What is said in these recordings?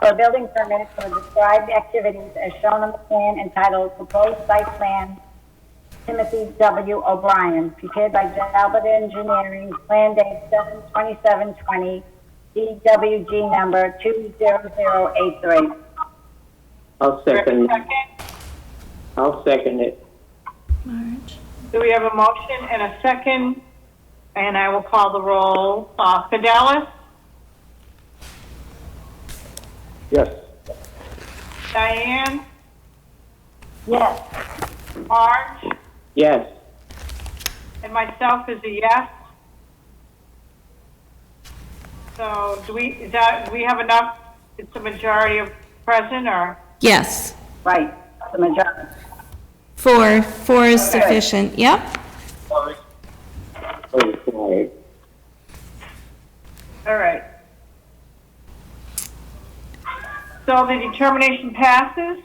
for a building permit for described activities as shown on the plan entitled Proposed Site Plan Timothy W. O'Brien, prepared by Talbot Engineering, Plan Date 7/27/20, DWG number 20083. I'll second, I'll second it. Marge, Do we have a motion and a second? And I will call the roll. Uh, Fidelis, Yes. Diane, Yes. Marge, Yes. and myself is a yes. So do we, is that, do we have enough, it's a majority of present or? yes, Right, the majority. four, four is sufficient, yep. Oh, sorry. All right. So the determination passes?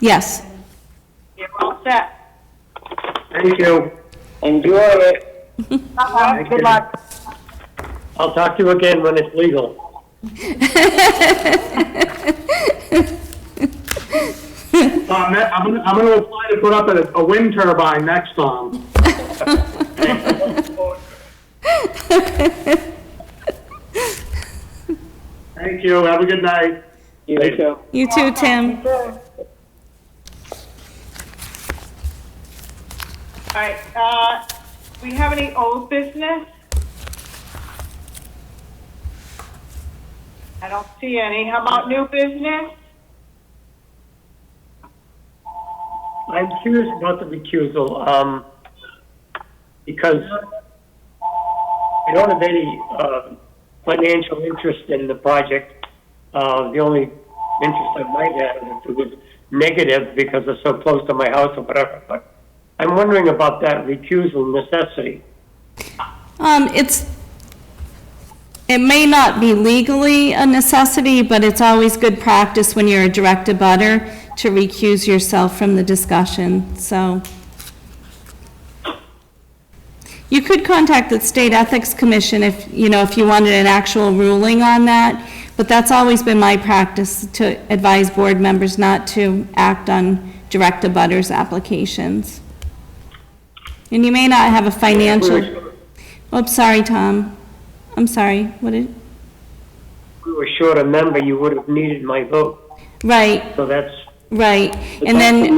Yes, You're all set. Thank you. Enjoy it. Good luck. I'll talk to you again when it's legal. Tom, that- I'm gonna, I'm gonna apply to put up a, a wind turbine next time. Thank you, have a good night. You Later. too. you too, Tim. All right, uh, we have any old business? I don't see any. How about new business? I'm curious about the recusal, um, because I don't have any, uh, financial interest in the project. Uh, the only interest I might have is if it was negative because it's so close to my house or whatever, but I'm wondering about that recusal necessity. Um, it's, it may not be legally a necessity, but it's always good practice when you're a direct abutter to recuse yourself from the discussion, so. You could contact the State Ethics Commission if, you know, if you wanted an actual ruling on that, but that's always been my practice to advise board members not to act on direct abutters' applications. And you may not have a financial. Oh, I'm sorry, Tom. I'm sorry, what did, If we were short a member, you would have needed my vote, right, so that's, right. And then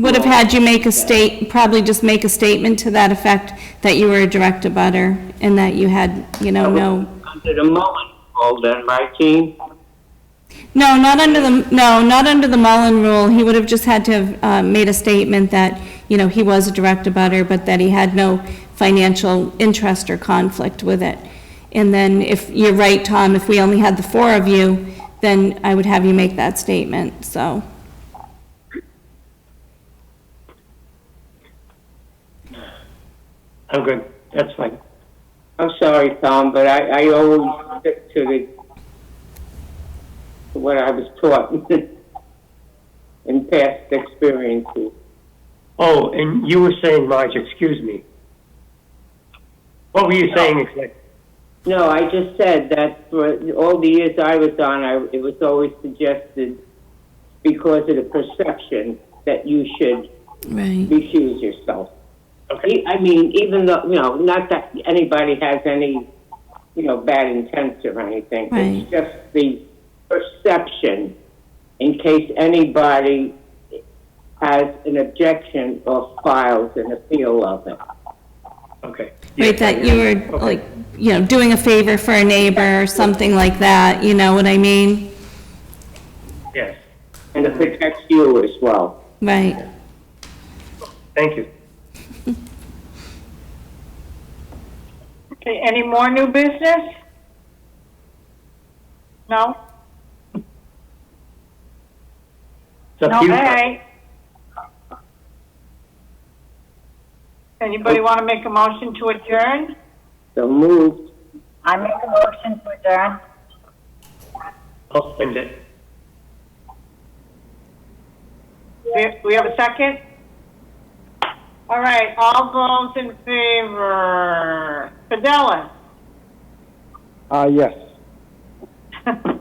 would have had you make a state, probably just make a statement to that effect that you were a direct abutter and that you had, you know, no, Under the Mullen rule then, right, Gene? no, not under the, no, not under the Mullen rule. He would have just had to have uh, made a statement that, you know, he was a direct abutter, but that he had no financial interest or conflict with it. And then if, you're right, Tom, if we only had the four of you, then I would have you make that statement, so. I'm good, that's fine. I'm sorry, Tom, but I, I always stick to the, to what I was taught in past experiences. Oh, and you were saying, Marge, excuse me. What were you saying exactly? No, I just said that for all the years I was on, I, it was always suggested because of the perception that you should Right. refuse yourself. Okay. E- I mean, even though, you know, not that anybody has any, you know, bad intents or anything. It's Right. just the perception in case anybody has an objection or files an appeal of it. Okay. Right, that you were, Okay. like, you know, doing a favor for a neighbor or something like that, you know what I mean? Yes, And it protects you as well. Right. thank you. Okay, any more new business? No? It's No, up to all you. right. Anybody want to make a motion to adjourn? So moved. I make a motion to adjourn. I'll send it. We- We have a second? All right, all those in favor? Fidelis? Uh, yes. Tom?